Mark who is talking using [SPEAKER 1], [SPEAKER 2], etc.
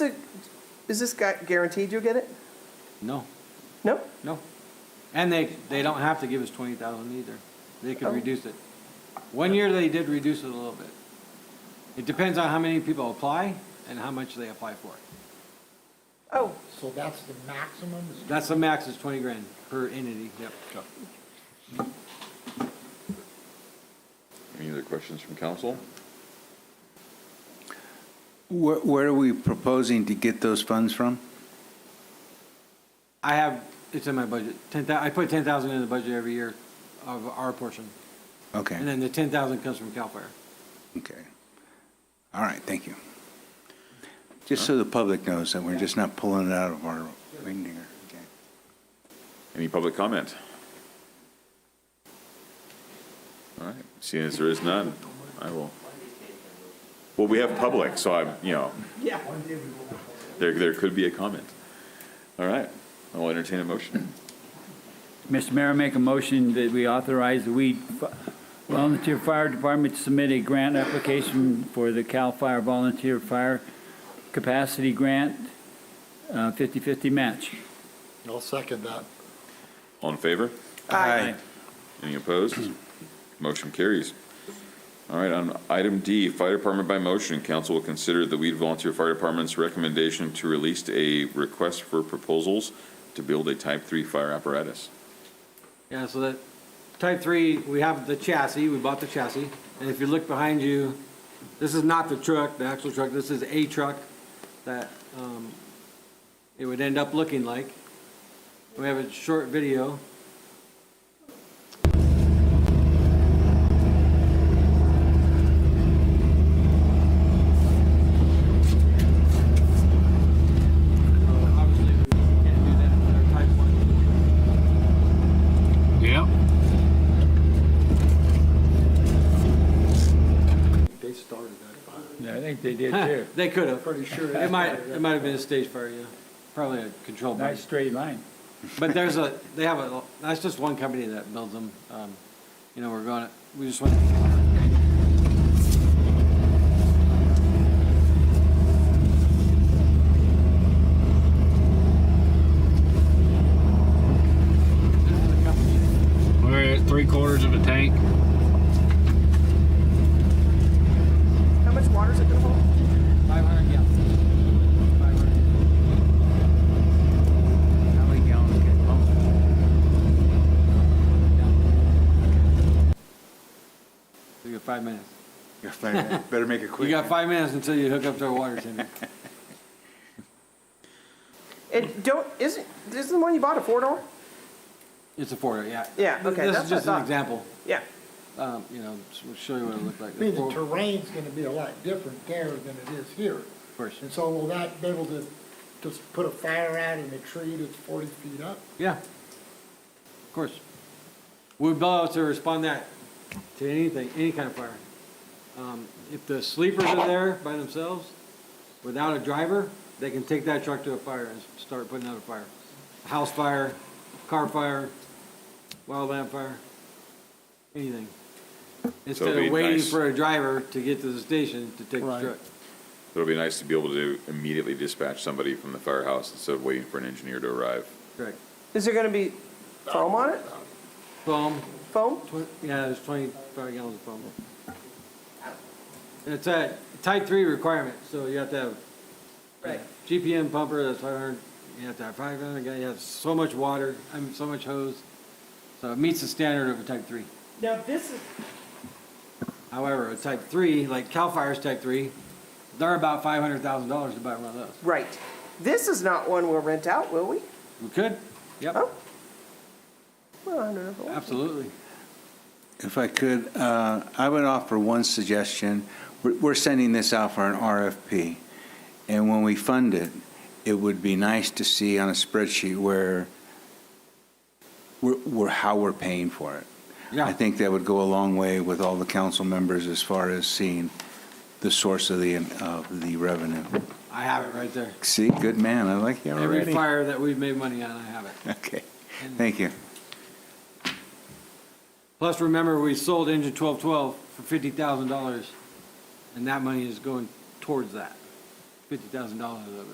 [SPEAKER 1] Is this guy guaranteed you'll get it?
[SPEAKER 2] No,
[SPEAKER 1] No?
[SPEAKER 2] no. And they, they don't have to give us twenty thousand either. They
[SPEAKER 1] Oh.
[SPEAKER 2] could reduce it. One year they did reduce it a little bit. It depends on how many people apply and how much they apply for.
[SPEAKER 1] Oh,
[SPEAKER 3] So that's the maximum?
[SPEAKER 2] That's the max is twenty grand per entity, yep.
[SPEAKER 4] Any other questions from council?
[SPEAKER 5] Where, where are we proposing to get those funds from?
[SPEAKER 2] I have, it's in my budget, ten I put ten thousand in the budget every year of our portion. And
[SPEAKER 5] Okay,
[SPEAKER 2] then the ten thousand comes from Cal Fire.
[SPEAKER 5] okay. All right, thank you. Just so the public knows that we're just not pulling it out of our wing here. Okay.
[SPEAKER 4] Any public comment? All right, seeing as there is none, I will. Well, we have public, so I'm, you know,
[SPEAKER 1] yeah.
[SPEAKER 4] there, there could be a comment. All right, I'll entertain a motion.
[SPEAKER 6] Mr. Mayor, make a motion that we authorize the Weed Volunteer Fire Department to submit a grant application for the CAL FIRE Volunteer Fire Capacity Grant, uh, 50/50 match.
[SPEAKER 3] I'll second that.
[SPEAKER 4] All in favor?
[SPEAKER 1] Aye.
[SPEAKER 4] Any opposed? Motion carries. All right, on item D, Fire Department by motion, council will consider the Weed Volunteer Fire Department's recommendation to release a request for proposals to build a type three fire apparatus.
[SPEAKER 2] Yeah, so that, type three, we have the chassis, we bought the chassis, and if you look behind you, this is not the truck, the actual truck, this is a truck that, um, it would end up looking like. We have a short video. Obviously, we can't do that with our type one.
[SPEAKER 6] Yep.
[SPEAKER 3] They started that.
[SPEAKER 6] I think they did
[SPEAKER 2] Huh,
[SPEAKER 6] too.
[SPEAKER 2] They could have.
[SPEAKER 3] Pretty sure.
[SPEAKER 2] It might, it might have been a stage fire, yeah. Probably a control burn.
[SPEAKER 6] Nice straight line.
[SPEAKER 2] But there's a, they have a, that's just one company that builds them. Um, You know, we're going, to we just went,
[SPEAKER 7] We're at three quarters of a tank.
[SPEAKER 1] How much water is it gonna hold?
[SPEAKER 2] 500 gallons. 500.
[SPEAKER 5] How many gallons get pumped?
[SPEAKER 2] You got five minutes.
[SPEAKER 5] Better make it
[SPEAKER 2] You
[SPEAKER 5] quick.
[SPEAKER 2] got five minutes until you hook up to our water tender.
[SPEAKER 1] It don't, isn't, isn't the one you bought a four-door?
[SPEAKER 2] It's a four, yeah.
[SPEAKER 1] Yeah,
[SPEAKER 2] Th-
[SPEAKER 1] okay,
[SPEAKER 2] This
[SPEAKER 1] that's what I
[SPEAKER 2] is just an
[SPEAKER 1] thought.
[SPEAKER 2] example.
[SPEAKER 1] Yeah.
[SPEAKER 2] Um, You know, s- we'll show you what it looked like.
[SPEAKER 3] I mean, the
[SPEAKER 2] Four-
[SPEAKER 3] terrain's gonna be a lot different there than it is here.
[SPEAKER 2] Of course.
[SPEAKER 3] And so will that be able to just put a fire out in a tree that's forty feet up?
[SPEAKER 2] Yeah. Of course. We'd be able to respond that to anything, any kind of fire. Um, If the sleepers are there by themselves, without a driver, they can take that truck to a fire and start putting out a fire. House fire, car fire, wildland fire, anything. Instead
[SPEAKER 4] be
[SPEAKER 2] of waiting
[SPEAKER 4] nice-
[SPEAKER 2] for a driver to get to the station to take the truck.
[SPEAKER 4] It'll be nice to be able to immediately dispatch somebody from the firehouse instead of waiting for an engineer to arrive.
[SPEAKER 2] Correct.
[SPEAKER 1] Is there gonna be foam on it?
[SPEAKER 2] Boom.
[SPEAKER 1] Foam?
[SPEAKER 2] Twen- Yeah, there's twenty-five gallons of foam. It's a type three requirement, so you have to have
[SPEAKER 1] Right.
[SPEAKER 2] GPM pumper, that's five hundred, you have to have five hundred, you have so much water, I mean, so much hose. So it meets the standard of a type three.
[SPEAKER 1] Now, this is.
[SPEAKER 2] However, a type three, like Cal Fire's type three, they're about five hundred thousand dollars to buy one of those.
[SPEAKER 1] Right. This is not one we'll rent out, will we?
[SPEAKER 2] We could, yep,
[SPEAKER 1] Oh. Well, I don't know. if it will.
[SPEAKER 2] absolutely.
[SPEAKER 5] If I could, uh, I would offer one suggestion. We're- We're sending this out for an RFP, and when we fund it, it would be nice to see on a spreadsheet where, we're- we're- how we're paying for it.
[SPEAKER 2] Yeah.
[SPEAKER 5] I think that would go a long way with all the council members as far as seeing the source of the, uh, of the revenue.
[SPEAKER 2] I have it right there.
[SPEAKER 5] See, good man, I like you already.
[SPEAKER 2] Every fire that we've made money on, I have it.
[SPEAKER 5] Okay, thank you.
[SPEAKER 2] Plus, remember, we sold engine twelve twelve for fifty thousand dollars, and that money is going towards that. Fifty thousand dollars of it.